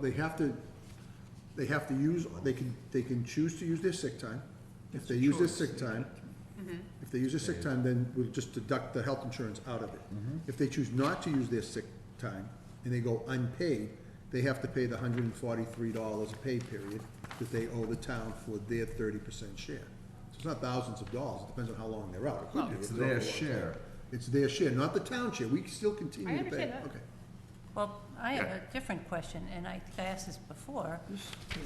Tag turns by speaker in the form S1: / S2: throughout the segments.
S1: they have to, they have to use, they can, they can choose to use their sick time. If they use their sick time,
S2: Mm-hmm.
S1: if they use their sick time, then we'll just deduct the health insurance out of it.
S3: Mm-hmm.
S1: If they choose not to use their sick time and they go unpaid, they have to pay the hundred and forty-three dollars a pay period that they owe the town for their thirty percent share. So it's not thousands of dollars, it depends on how long they're out. It could be,
S3: It's
S1: if they're out
S3: their
S1: a long time.
S3: share.
S1: It's their share, not the town share, we still continue to pay.
S2: I understand that.
S1: Okay.
S4: Well, I have a different question, and I think I asked this before.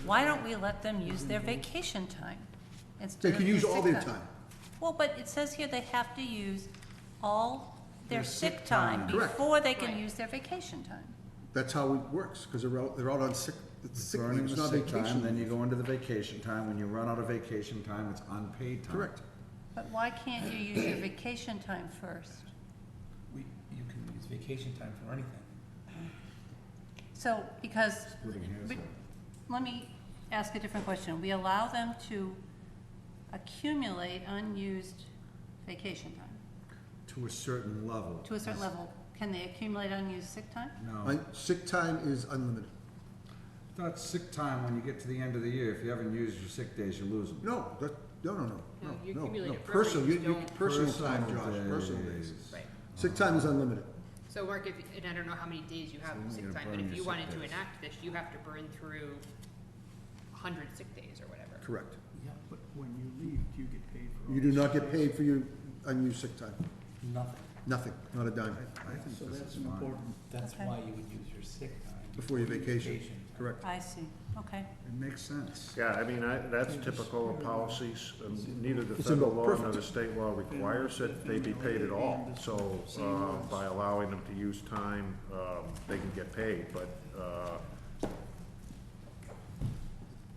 S4: Why don't we let them use their vacation time instead
S1: They
S4: of
S1: can
S4: their
S1: use
S4: sick
S1: all their
S4: time?
S1: time.
S4: Well, but it says here they have to use all their
S3: Their sick
S4: sick time
S3: time.
S1: Correct.
S4: before they can
S2: Right.
S4: use their vacation time.
S1: That's how it works, because they're out, they're out on sick, it's sick leave,
S3: Burning
S1: it's
S3: the
S1: not
S3: sick time, then
S1: vacation.
S3: you go into the vacation time. When you run out of vacation time, it's unpaid time.
S1: Correct.
S4: But why can't you use your vacation time first?
S5: We, you can use vacation time for anything.
S4: So, because, but- let me ask a different question. We allow them to accumulate unused vacation time.
S3: To a certain level.
S4: To a certain level, can they accumulate unused sick time?
S3: No,
S1: Un- Sick time is unlimited.
S3: that's sick time when you get to the end of the year. If you haven't used your sick days, you lose them.
S1: No, that, no, no, no,
S2: No, you
S1: no, no,
S2: accumulate
S1: no.
S2: it for
S1: Personal, you,
S2: everything,
S1: you,
S2: don't-
S1: personal time, Josh, personal days.
S2: Right.
S1: Sick time is unlimited.
S2: So Mark, if, and I don't know how many days you have
S3: So
S2: of
S3: you
S2: sick
S3: gotta
S2: time, but
S3: burn
S2: if
S3: your
S2: you
S3: sick
S2: wanted to
S3: days.
S2: enact this, you have to burn through a hundred sick days or whatever.
S1: Correct.
S6: Yeah, but when you leave, you get paid for all
S1: You do
S6: this
S1: not get
S6: space.
S1: paid for your unused sick time.
S5: Nothing.
S1: Nothing, not a dime.
S3: I think
S6: So
S3: this
S6: that's
S3: is
S6: an
S3: fine.
S6: important,
S5: That's
S4: Okay.
S5: why you would use your sick time.
S1: Before your vacation,
S5: time.
S1: correct.
S4: I see, okay.
S3: It makes sense.
S7: Yeah, I mean, I, that's typical of policies, um, neither the
S1: It's in the
S7: federal law nor
S1: perfect.
S7: the state law requires that they be paid at all. So, uh, by allowing them to use time, um, they can get paid, but, uh,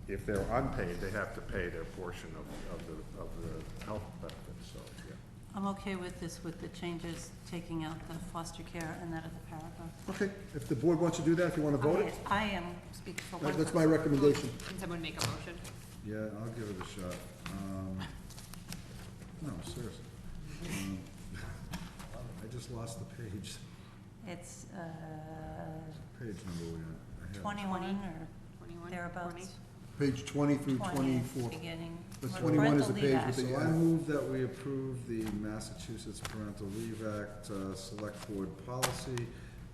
S7: if they're unpaid, they have to pay their portion of, of the, of the health benefits, so, yeah.
S4: I'm okay with this, with the changes, taking out the foster care and that other paragraph.
S1: Okay, if the board wants to do that, if you wanna vote it,
S4: I am speaking for one
S1: that- that's
S4: person.
S1: my recommendation.
S2: Can someone make a motion?
S3: Yeah, I'll give it a shot. Um, no, seriously. Um, I just lost the page,
S4: It's uh,
S3: page number we had.
S4: 21 or
S2: Twenty-one?
S4: thereabouts.
S1: Page twenty through
S4: 20,
S1: twenty-four.
S4: Beginning.
S1: The
S4: Well,
S1: 21 is
S4: parental
S1: the
S4: leave
S1: page with
S4: act.
S1: the-
S3: So I move that we approve the Massachusetts Parental Leave Act uh, Select Board Policy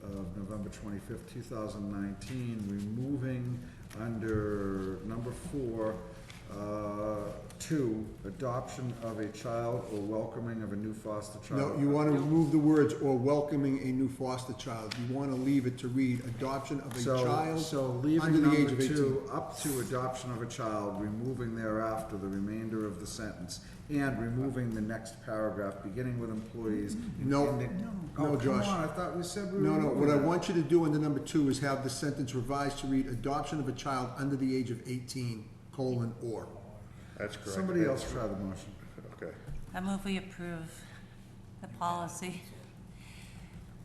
S3: of November twenty-fifth, two thousand nineteen, removing under number four, uh, two, adoption of a child or welcoming of a new foster child.
S1: No, you wanna remove the words "or welcoming a new foster child." You wanna leave it to read adoption of a
S3: So,
S1: child
S3: so
S1: under
S3: leaving
S1: the age
S3: number
S1: of eighteen.
S3: two up to adoption of a child, removing thereafter the remainder of the sentence, and removing the next paragraph, beginning with employees. and
S1: No,
S3: ending-
S1: no,
S3: Oh,
S1: Josh.
S3: Come on, I thought we said we were.
S1: No, no,
S3: doing
S1: what I
S3: that.
S1: want you to do under number two is have the sentence revised to read adoption of a child under the age of eighteen, colon, or.
S7: That's correct.
S3: Somebody else try the motion.
S7: Okay.
S4: I move we approve the policy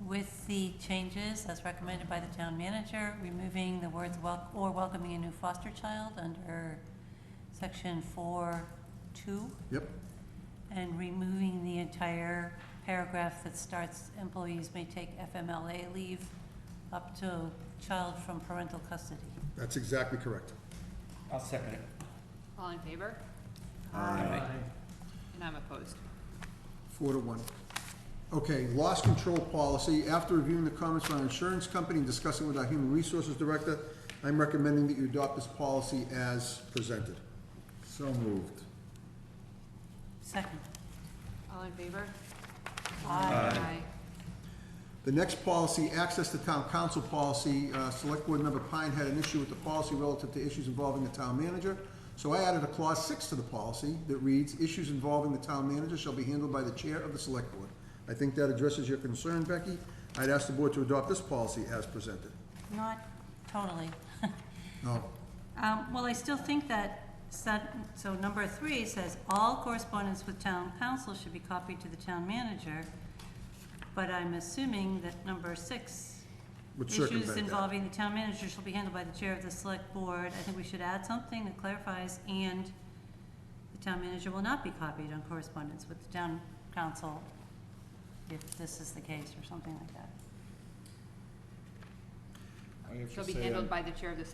S4: with the changes as recommended by the town manager, removing the words wel, or welcoming a new foster child under section four two,
S1: Yep,
S4: and removing the entire paragraph that starts employees may take FMLA leave up to child from parental custody.
S1: that's exactly correct.
S5: I'll second it.
S2: All in favor?
S5: Aye.
S2: And I'm opposed.
S1: Four to one. Okay, loss control policy. After reviewing the comments from our insurance company and discussing with our human resources director, I'm recommending that you adopt this policy as presented.
S3: So moved.
S4: Second.
S2: All in favor?
S4: Aye.
S2: Aye.
S1: The next policy, access to town council policy, uh, Select Board Member Pine had an issue with the policy relative to issues involving the town manager. So I added a clause six to the policy that reads, "Issues involving the town manager shall be handled by the chair of the Select Board." I think that addresses your concern, Becky. I'd ask the board to adopt this policy as presented.
S4: Not totally.
S1: No,
S4: Um, Well, I still think that, sub- so number three says, "All correspondence with town council should be copied to the town manager," but I'm assuming that number six,
S1: would
S4: "Issues
S1: circumvent that.
S4: involving the town manager shall be handled by the chair of the select board." I think we should add something that clarifies, "And the town manager will not be copied on correspondence with the town council," if this is the case, or something like that.
S3: I have to
S2: Shall be
S3: say I-
S2: handled by the chair of the